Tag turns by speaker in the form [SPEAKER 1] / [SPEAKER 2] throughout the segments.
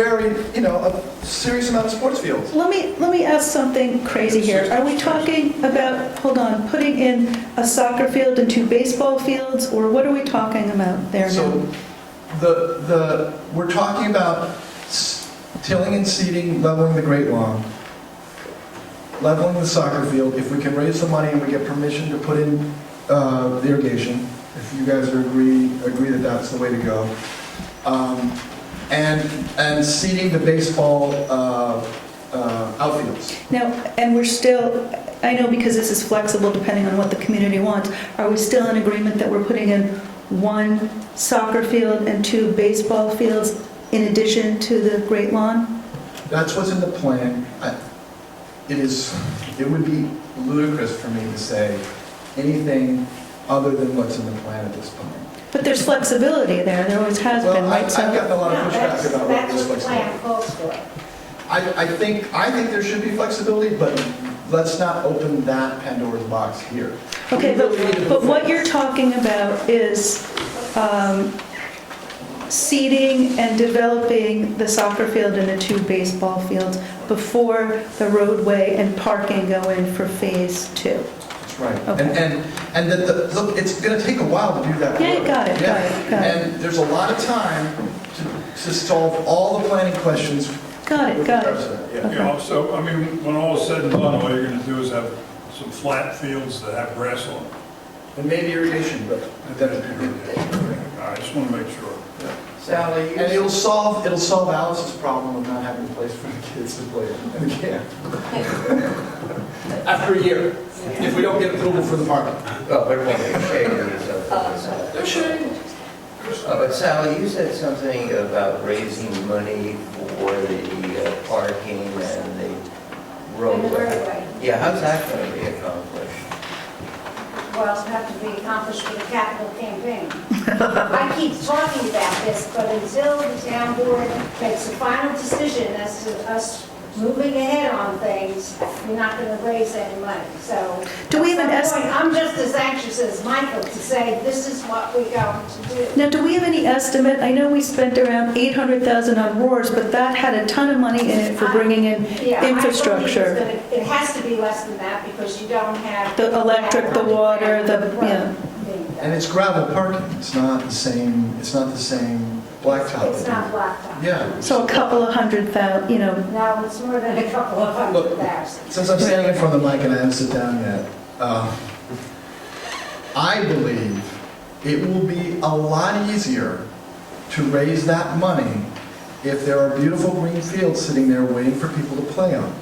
[SPEAKER 1] operate, you know, a serious amount of sports fields.
[SPEAKER 2] Let me, let me ask something crazy here. Are we talking about, hold on, putting in a soccer field and two baseball fields, or what are we talking about there
[SPEAKER 1] So
[SPEAKER 2] now?
[SPEAKER 1] the, the, we're talking about s- tilling and seeding, leveling the Great Lawn, leveling the soccer field. If we can raise the money and we get permission to put in uh, irrigation, if you guys are agree, agree that that's the way to go. Um, And, and seeding the baseball uh, uh, outfields.
[SPEAKER 2] Now, and we're still, I know because this is flexible depending on what the community wants, are we still in agreement that we're putting in one soccer field and two baseball fields in addition to the Great Lawn?
[SPEAKER 1] That's what's in the plan. I- It is, it would be ludicrous for me to say anything other than what's in the plan at this point.
[SPEAKER 2] But there's flexibility there, there always has been,
[SPEAKER 1] Well, I-
[SPEAKER 2] right?
[SPEAKER 1] I've
[SPEAKER 2] So-
[SPEAKER 1] gotten a lot of
[SPEAKER 3] No, that's-
[SPEAKER 1] pushback about what
[SPEAKER 3] that's
[SPEAKER 1] this
[SPEAKER 3] what
[SPEAKER 1] looks
[SPEAKER 3] the
[SPEAKER 1] like.
[SPEAKER 3] plan calls for.
[SPEAKER 1] I, I think, I think there should be flexibility, but let's not open that Pandora's box here.
[SPEAKER 2] Okay,
[SPEAKER 1] We really need to
[SPEAKER 2] but,
[SPEAKER 1] move
[SPEAKER 2] but what
[SPEAKER 1] forward.
[SPEAKER 2] you're talking about is um, seeding and developing the soccer field and the two baseball fields before the roadway and parking go in for phase two.
[SPEAKER 1] That's right.
[SPEAKER 2] Okay.
[SPEAKER 1] And, and, and that the, look, it's gonna take a while to do that.
[SPEAKER 2] Yeah,
[SPEAKER 1] work.
[SPEAKER 2] got it, got
[SPEAKER 1] Yeah.
[SPEAKER 2] it, got it.
[SPEAKER 1] And there's a lot of time to, to solve all the planning questions.
[SPEAKER 2] Got it,
[SPEAKER 1] with
[SPEAKER 2] got
[SPEAKER 1] regards
[SPEAKER 2] it.
[SPEAKER 1] to that. Yeah.
[SPEAKER 2] Okay.
[SPEAKER 4] You know, so, I mean, when all is said and done, all you're gonna do is have some flat fields that have grass on them.
[SPEAKER 1] And maybe irrigation, but
[SPEAKER 4] And
[SPEAKER 1] that
[SPEAKER 4] that'd be great. I just wanna make sure.
[SPEAKER 5] Sally,
[SPEAKER 1] And it'll
[SPEAKER 5] you-
[SPEAKER 1] solve, it'll solve Alice's problem of not having a place for the kids to play in the camp. After a year, if we don't get approval for the parking.
[SPEAKER 5] well, there won't be shading or something.
[SPEAKER 1] There shouldn't.
[SPEAKER 5] Uh, But Sally, you said something about raising money for the uh, parking and the
[SPEAKER 3] And the
[SPEAKER 5] roadway.
[SPEAKER 3] roadway,
[SPEAKER 5] Yeah, how's that going to be accomplished?
[SPEAKER 3] well, it's have to be accomplished with a capital campaign. I keep talking about this, but until the town board makes a final decision as to us moving ahead on things, we're not going to raise any money, so.
[SPEAKER 2] Do we have an
[SPEAKER 3] at
[SPEAKER 2] es-
[SPEAKER 3] some point, I'm just as anxious as Michael to say, this is what we're going to do.
[SPEAKER 2] Now, do we have any estimate? I know we spent around 800,000 on roars, but that had a ton of money in it for bringing in
[SPEAKER 3] Yeah, I believe it's
[SPEAKER 2] infrastructure.
[SPEAKER 3] gonna- It has to be less than that because you don't have.
[SPEAKER 2] The electric, the water, the-
[SPEAKER 3] Right.
[SPEAKER 2] yeah.
[SPEAKER 1] And it's gravel parking, it's not the same, it's not the same blacktop.
[SPEAKER 3] It's not blacktop.
[SPEAKER 1] Yeah.
[SPEAKER 2] So a couple of hundred thousand, you know,
[SPEAKER 3] No, it's more than a couple of hundred
[SPEAKER 1] Look,
[SPEAKER 3] thousand.
[SPEAKER 1] Since I'm standing in front of the mic and I haven't sat down yet, uh, I believe it will be a lot easier to raise that money if there are beautiful green fields sitting there waiting for people to play on.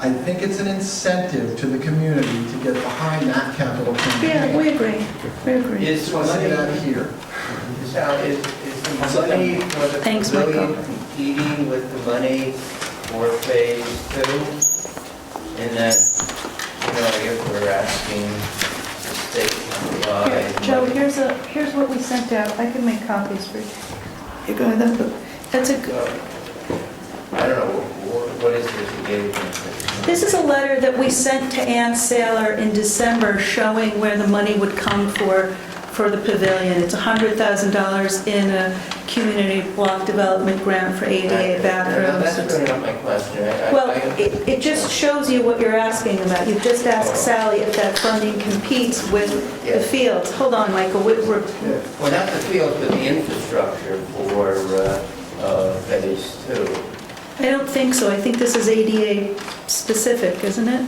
[SPEAKER 1] I think it's an incentive to the community to get behind that capital campaign.
[SPEAKER 2] yeah, we agree, we agree.
[SPEAKER 5] Is
[SPEAKER 1] Just want to say that
[SPEAKER 5] money,
[SPEAKER 1] here.
[SPEAKER 5] Sally, is is the money for the
[SPEAKER 2] Thanks, Michael.
[SPEAKER 5] pavilion competing with the money for phase two? In that, you know, if we're asking the state to
[SPEAKER 2] Here,
[SPEAKER 5] provide.
[SPEAKER 2] Joe,
[SPEAKER 5] money-
[SPEAKER 2] here's a, here's what we sent out, I can make copies for you. You go, that- that's a,
[SPEAKER 5] I don't know, wh- what is this you gave me?
[SPEAKER 2] this is a letter that we sent to Ann Saylor in December showing where the money would come for, for the pavilion. It's $100,000 in a community block development grant for ADA
[SPEAKER 5] No, That's
[SPEAKER 2] bathrooms.
[SPEAKER 5] really not my question. I- I-
[SPEAKER 2] Well,
[SPEAKER 5] I-
[SPEAKER 2] it, it just shows you what you're asking about. You've just asked Sally if that funding competes with the fields. Hold on, Michael, we- we're,
[SPEAKER 5] Well, not the field, but the infrastructure for uh, uh, phase two.
[SPEAKER 2] I don't think so. I think this is ADA specific, isn't it?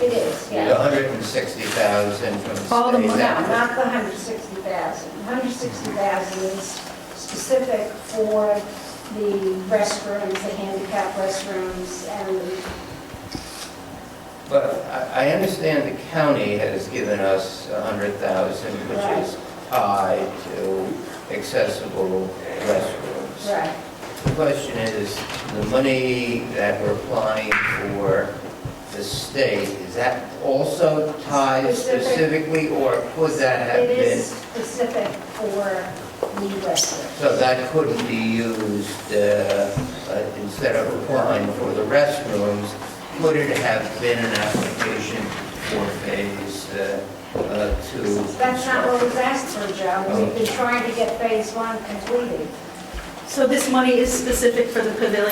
[SPEAKER 3] It is,
[SPEAKER 5] The
[SPEAKER 3] yeah.
[SPEAKER 5] 160,000 from the state.
[SPEAKER 2] All the
[SPEAKER 3] No,
[SPEAKER 2] money.
[SPEAKER 3] not the hundred sixty thousand. Hundred sixty thousand is specific for the restrooms, the handicap restrooms, and
[SPEAKER 5] But I I understand the county has given us 100,000, which is tied to accessible restrooms.
[SPEAKER 3] right.
[SPEAKER 5] The question is, the money that we're applying for the state, is that also tied
[SPEAKER 3] Specific.
[SPEAKER 5] specifically, or could that have
[SPEAKER 3] It
[SPEAKER 5] been?
[SPEAKER 3] is specific for the restrooms.
[SPEAKER 5] So that couldn't be used, uh, uh, instead of applying for the restrooms, could it have been an application for phase uh, uh, two?
[SPEAKER 3] That's not what was asked for, Joe. We've been trying to get phase one completed.
[SPEAKER 2] So this money is specific for the pavilion?